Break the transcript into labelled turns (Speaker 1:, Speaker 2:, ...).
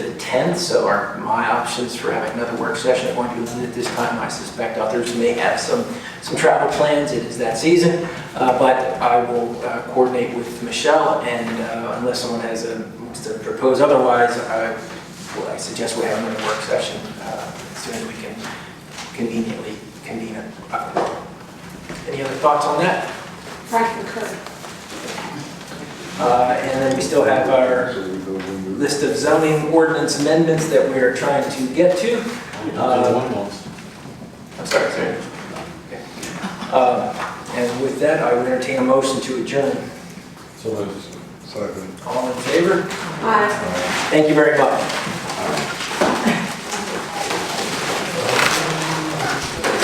Speaker 1: 10th, so our, my options for having another work session are going to be limited this time. I suspect others may have some, some travel plans, it is that season. Uh, But I will uh, coordinate with Michelle, and uh, unless someone has a, wants to propose otherwise, I, well, I suggest we have another work session uh, as soon as we can conveniently convene it. Any other thoughts on that?
Speaker 2: I concur.
Speaker 1: Uh, And then we still have our list of zoning ordinance amendments that we are trying to get to. Uh, I'm sorry, sorry. Okay. Uh, And with that, I would entertain a motion to adjourn.
Speaker 3: So moved.
Speaker 4: Second.
Speaker 1: All in favor?
Speaker 2: Aye.
Speaker 1: Thank you very much.